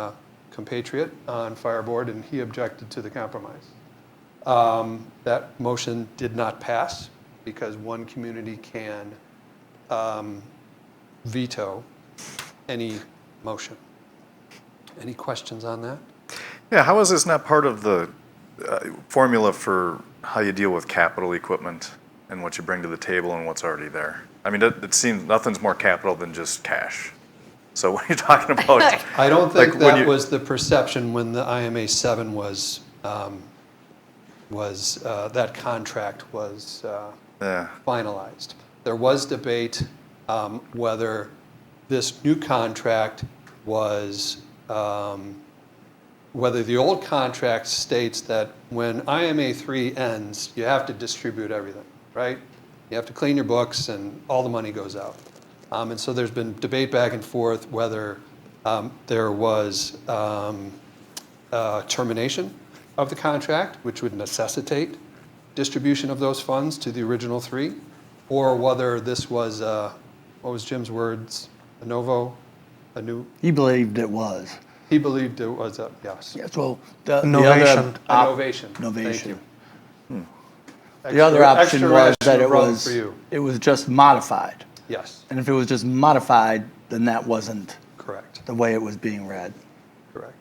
uh, compatriot on Fire Board, and he objected to the compromise. Um, That motion did not pass because one community can um, veto any motion. Any questions on that? Yeah, how is this not part of the uh, formula for how you deal with capital equipment and what you bring to the table and what's already there? I mean, it, it seems nothing's more capital than just cash. So what are you talking about? I don't think Like, when that you- was the perception when the IMA seven was, um, was, uh, that contract was uh, yeah, finalized. There was debate um, whether this new contract was, um, whether the old contract states that when IMA three ends, you have to distribute everything, right? You have to clean your books and all the money goes out. Um, And so there's been debate back and forth whether um, there was um, uh, termination of the contract, which would necessitate distribution of those funds to the original three, or whether this was, uh, what was Jim's words, a novo, a new, He believed it was. he believed it was a, yes. Yeah, so the, the Novation. other, An op- ovation. Thank novation. you. the other Extra- option extra was rational that it run was, For you, it was just modified. yes, And if it was just modified, then that wasn't correct, the way it was being read. correct.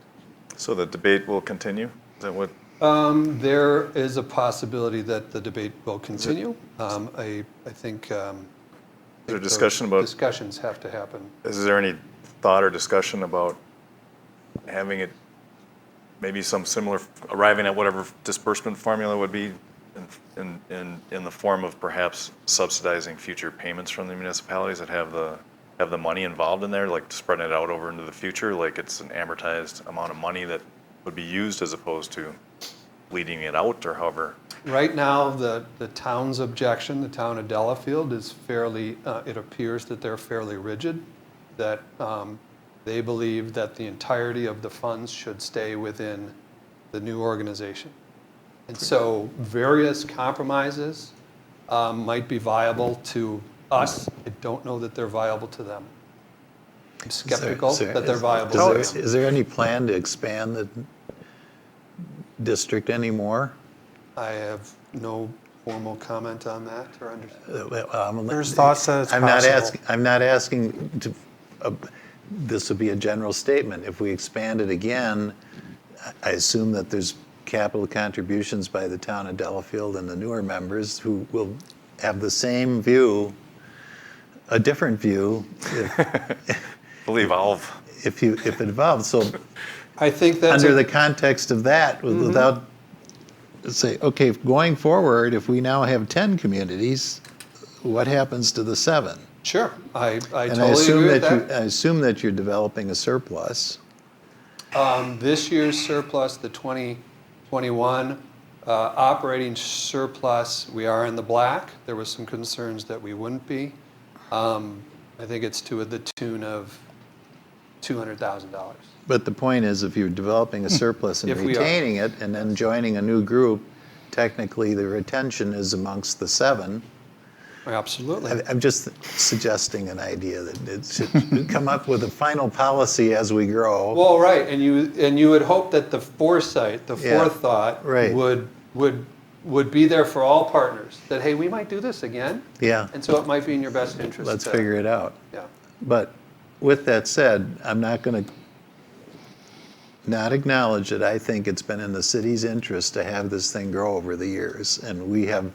so the debate will continue? Is that what? Um, There is a possibility that the debate will continue. Um, I, I think. um, Is there the discussion about- Discussions have to happen. Is there any thought or discussion about having it, maybe some similar, arriving at whatever disbursement formula would be in, in, in, in the form of perhaps subsidizing future payments from the municipalities that have the, have the money involved in there, like spreading it out over into the future, like it's an amortized amount of money that would be used as opposed to bleeding it out or however? Right now, the, the town's objection, the town of Delafield is fairly, uh, it appears that they're fairly rigid, that um, they believe that the entirety of the funds should stay within the new organization. And so various compromises um, might be viable to us. I don't know that they're viable to them. I'm Is there- skeptical is there- that they're is- viable is there- to Oh, them. Is there any plan to expand the district anymore? I have no formal comment on that or understanding. There's There's thoughts that it's Um, I'm not possible. asking, I'm not asking to, uh, this would be a general statement. If we expand it again, I- I assume that there's capital contributions by the town of Delafield and the newer members who will have the same view, a different view, if- Believe all of. if you, if it evolves. So I think that's. under a- Mm-hmm. the context of that with- without say okay if going forward if we now have 10 communities what happens to the seven Sure, I, I and totally i assume agree with that, that. you i assume that you're developing a surplus Um, This year's surplus, the 2021 uh, operating surplus, we are in the black. There was some concerns that we wouldn't be. Um, I think it's to the tune of $200,000. but the point is if you're developing a surplus and Hmm. If we are. retaining it and then joining a new group technically the retention is amongst the seven Absolutely. I- I'm just suggesting an idea that it should come up with a final policy as we grow. Well, right, and you, and you would hope that the foresight, the Yeah, forethought right. would, would, would be there for all partners, that, hey, we might do this again. Yeah. And so it might be in your best interest. Let's to- figure it out. Yeah. But with that said, I'm not going to not acknowledge that I think it's been in the city's interest to have this thing grow over the years, and we have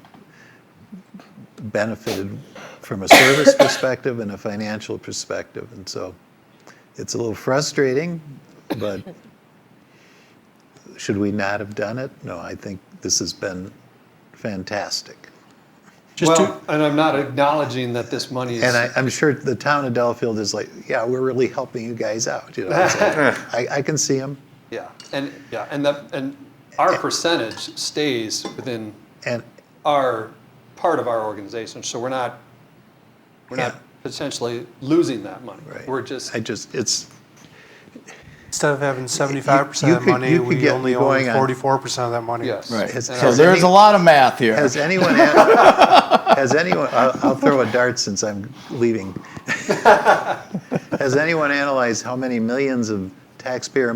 benefited from a service perspective and a financial perspective, and so it's a little frustrating, but should we not have done it? No, I think this has been fantastic. well, Just to, and I'm not acknowledging that this money is. And I, I'm sure the town of Delafield is like, yeah, we're really helping you guys out. You know, it's like, I, I can see them. yeah, and yeah, and the, and our percentage stays within And our part of our organization, so we're not we're Yeah. not potentially losing that money. right, We're just I just, it's, instead of having seventy-five percent you of the could- money, you could we get only going on- own forty-four percent of that money. yes. Has- And So our- has- there's a lot of math here. has anyone, had, has anyone, I'll, I'll throw a dart since I'm leaving. has anyone analyzed how many millions of taxpayer